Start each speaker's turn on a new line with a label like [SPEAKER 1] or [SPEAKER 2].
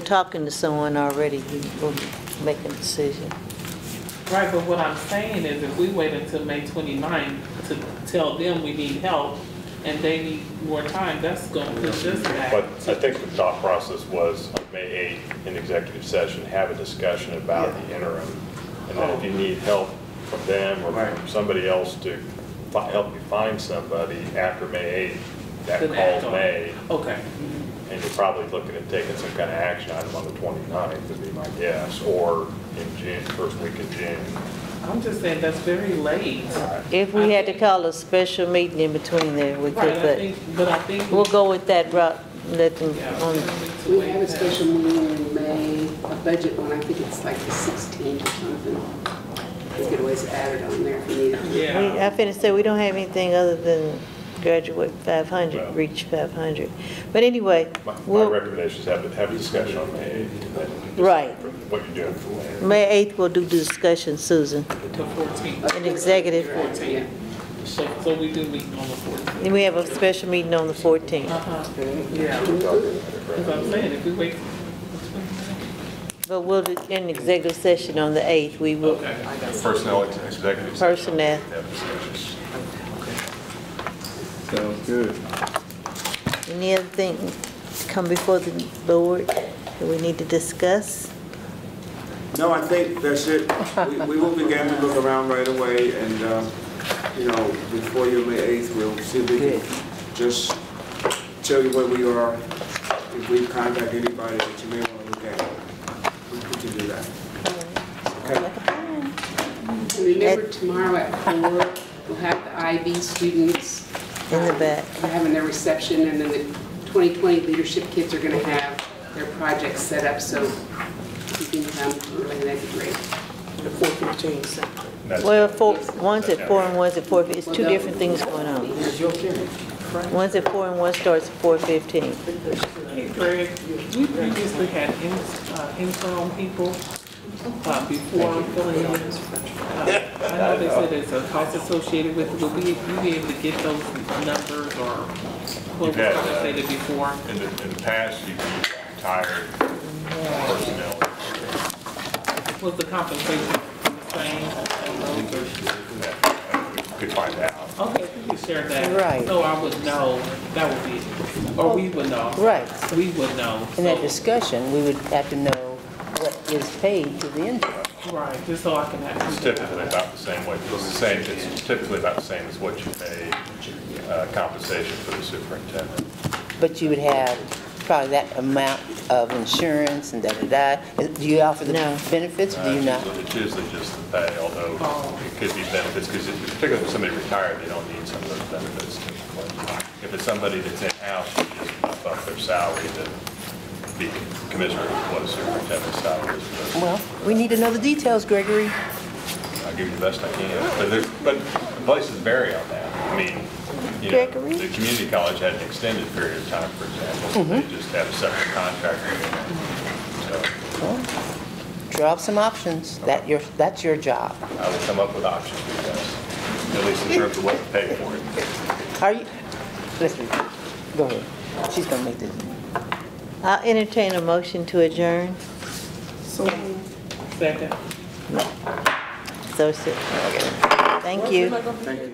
[SPEAKER 1] talking to someone already, we will make a decision.
[SPEAKER 2] Right, but what I'm saying is if we wait until May 29th to tell them we need help and they need more time, that's gonna push us
[SPEAKER 3] But
[SPEAKER 2] back.
[SPEAKER 3] I think the thought process was on May 8th, in executive session, have a discussion about the interim. And then
[SPEAKER 2] Oh.
[SPEAKER 3] if you need help from them or from
[SPEAKER 4] Right.
[SPEAKER 3] somebody else to fi- help you find somebody after May 8th, that
[SPEAKER 2] Then act
[SPEAKER 3] call
[SPEAKER 2] on
[SPEAKER 3] May,
[SPEAKER 2] it. Okay,
[SPEAKER 3] and you're probably looking at taking some kind of action item on the 29th, would be my guess, or in June, first week of June.
[SPEAKER 2] I'm just saying that's very late.
[SPEAKER 1] If we had to call a special meeting in between there, we
[SPEAKER 2] Right, I
[SPEAKER 1] could,
[SPEAKER 2] think, but I think.
[SPEAKER 1] but we'll go with that route, let them,
[SPEAKER 2] Yeah, I
[SPEAKER 1] um,
[SPEAKER 2] think it's
[SPEAKER 5] We
[SPEAKER 2] way
[SPEAKER 5] have a
[SPEAKER 2] past-
[SPEAKER 5] special meeting in May, a budget one, I think it's like the 16th or something. You could always add it on there if you need it.
[SPEAKER 1] we-
[SPEAKER 2] Yeah,
[SPEAKER 1] I finished, say we don't have anything other than graduate
[SPEAKER 3] Well.
[SPEAKER 1] 500, reach 500. But anyway,
[SPEAKER 3] My- My
[SPEAKER 1] we'll,
[SPEAKER 3] recommendation is have, a- have a discussion on May 8th. and then
[SPEAKER 1] Right.
[SPEAKER 3] What you're doing from there.
[SPEAKER 1] May 8th, we'll do the discussion, Susan.
[SPEAKER 2] the fourteenth.
[SPEAKER 1] An executive.
[SPEAKER 5] Yeah.
[SPEAKER 2] So, so we do meet on the fourteenth.
[SPEAKER 1] And we have a special meeting on the 14th,
[SPEAKER 2] Uh-huh, yeah, because I'm saying if we wait.
[SPEAKER 1] but we'll do an executive session on the 8th, we will,
[SPEAKER 3] Personnel executive
[SPEAKER 1] personnel.
[SPEAKER 3] have discussions.
[SPEAKER 4] Sounds good.
[SPEAKER 1] Any other thing come before the board that we need to discuss?
[SPEAKER 4] No, I think that's it. We- We will begin to look around right away, and, uh, you know, before your May 8th, we'll see if we can just tell you where we are, if we contact anybody that you may want to look at. We we can do that. Okay?
[SPEAKER 5] And remember tomorrow at 4, we'll have the IB students.
[SPEAKER 1] In the back.
[SPEAKER 5] um, Having their reception, and then the 2020 leadership kids are going to have their projects set up, so if you can come early, that'd be great.
[SPEAKER 3] That's-
[SPEAKER 1] Well, four, one's at four and one's at four, fif- it's two different things going on. One's at four and one starts at four fifteen.
[SPEAKER 2] Hey Greg, we previously had in- uh, interim people uh, before I'm filling in. Uh, I know they said there's a cost associated with it, will we, we be able to get those numbers or what was
[SPEAKER 3] You've had, uh,
[SPEAKER 2] compensated before?
[SPEAKER 3] In the, in the past, you can retire personnel.
[SPEAKER 2] Was the compensation the same? on those, or-
[SPEAKER 3] that Could find out.
[SPEAKER 2] Okay, if you could share that.
[SPEAKER 1] Right.
[SPEAKER 2] So I would know, that would be, or we would know.
[SPEAKER 6] Right.
[SPEAKER 2] We would know.
[SPEAKER 6] In that
[SPEAKER 2] So-
[SPEAKER 6] discussion, we would have to know what is paid to the intern.
[SPEAKER 2] Right, just so I can have.
[SPEAKER 3] It's typically about the same way, it's the same, it's typically about the same as what you pay uh, compensation for the superintendent.
[SPEAKER 6] But you would have probably that amount of insurance and da-da-da. Do you offer the
[SPEAKER 1] No.
[SPEAKER 6] benefits or do you Oh.
[SPEAKER 3] Uh,
[SPEAKER 6] not?
[SPEAKER 3] It's usually just the pay, although it could be benefits, because particularly if somebody retired, they don't need some of those benefits typically. If it's somebody that's in-house, you just bump up their salary to be commensurate with what a superintendent's salary is. but-
[SPEAKER 6] Well, we need to know the details, Gregory.
[SPEAKER 3] I'll give you the best I can, but there's, but the places vary on that. I mean, you know,
[SPEAKER 1] Gregory?
[SPEAKER 3] the community college had an extended period of time, for
[SPEAKER 6] Mm-hmm.
[SPEAKER 3] example, they just have a separate contract. agreement.
[SPEAKER 6] Draw up some options. That your, that's your job.
[SPEAKER 3] So I will come up with options for this, at least in terms of what to pay for it.
[SPEAKER 6] Are you, listen, go ahead. She's gonna make the,
[SPEAKER 1] I'll entertain a motion to adjourn.
[SPEAKER 2] Second.
[SPEAKER 1] So, so- thank you.